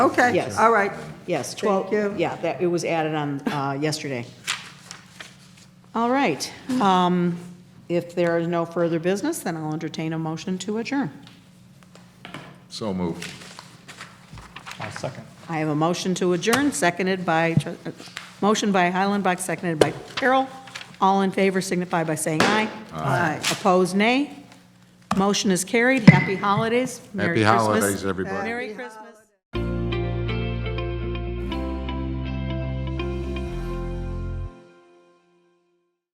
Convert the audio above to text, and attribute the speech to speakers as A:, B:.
A: Okay,
B: Yes.
A: all right.
B: Yes,
A: Thank
B: 12,
A: you.
B: yeah, that, it was added on uh, yesterday. All right.
A: Hmm.
B: um, If there is no further business, then I'll entertain a motion to adjourn.
C: So moved.
D: I'll second.
B: I have a motion to adjourn, seconded by, tr- uh, motion by Heilenbach, seconded by Carroll. All in favor signify by saying aye.
A: Aye.
B: Opposed, nay. Motion is carried. Happy holidays. Merry
C: Happy
B: Christmas.
C: holidays, everybody.
B: Merry Christmas.